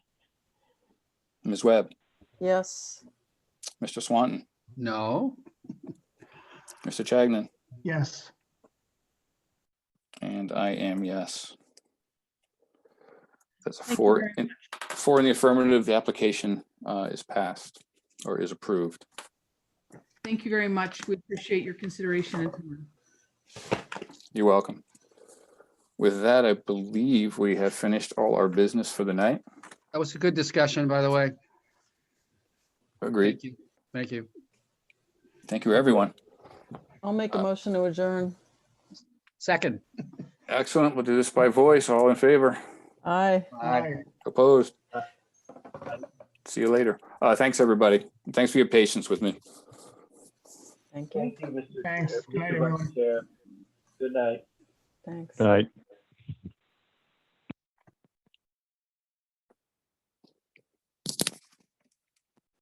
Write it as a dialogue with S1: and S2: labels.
S1: Ms. Webb,
S2: yes,
S1: Mr. Swanton,
S3: No.
S1: Mr. Chagnon,
S3: Yes.
S1: and I am yes. That's a
S4: Thank you
S1: four,
S4: very
S1: in- four in the affirmative, the application uh, is passed or is approved.
S4: Thank you very much. We appreciate your consideration and time.
S1: You're welcome. With that, I believe we have finished all our business for the night.
S3: That was a good discussion, by the way.
S1: Agreed.
S3: Thank you. Thank you.
S1: Thank you, everyone.
S2: I'll make a
S1: Uh,
S2: motion to adjourn.
S3: Second.
S1: Excellent. We'll do this by voice. All in favor?
S2: Aye.
S3: Aye.
S1: Opposed? See you later. Uh, Thanks, everybody. Thanks for your patience with me.
S2: Thank you,
S5: Thank you, Mr.
S6: Thanks.
S5: Mr.
S6: Good night, everyone.
S5: Vice Chair. Good night.
S2: thanks.
S7: All right.